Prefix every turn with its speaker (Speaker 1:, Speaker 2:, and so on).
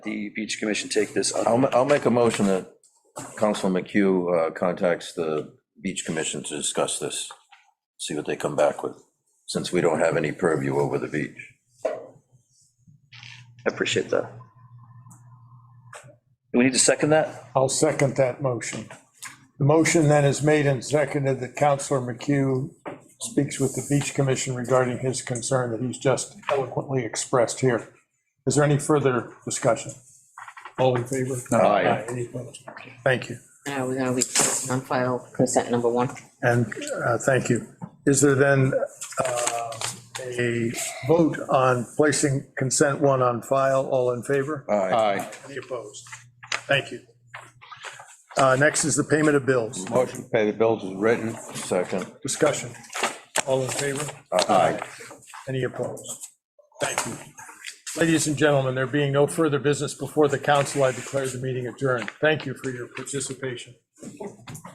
Speaker 1: the beach commission take this up.
Speaker 2: I'll, ma- I'll make a motion that Councilman McHugh uh, contacts the Beach Commission to discuss this, see what they come back with, since we don't have any purview over the beach.
Speaker 1: I appreciate that. Do we need to second that?
Speaker 3: I'll second that motion. The motion then is made and seconded that Counselor McHugh speaks with the Beach Commission regarding his concern that he's just eloquently expressed here. Is there any further discussion? All in favor?
Speaker 2: Aye.
Speaker 3: Any opposed? Thank you,
Speaker 4: Now, we're gonna be placing on file consent number one.
Speaker 3: and uh, thank you. Is there then uh, a vote on placing consent one on file? All in favor?
Speaker 2: Aye.
Speaker 3: Any opposed? Thank you. Uh, Next is the payment of bills.
Speaker 2: Motion to pay the bills is written. Second.
Speaker 3: Discussion. All in favor?
Speaker 2: Aye.
Speaker 3: Any opposed? Thank you. Ladies and gentlemen, there being no further business before the council, I declare the meeting adjourned. Thank you for your participation.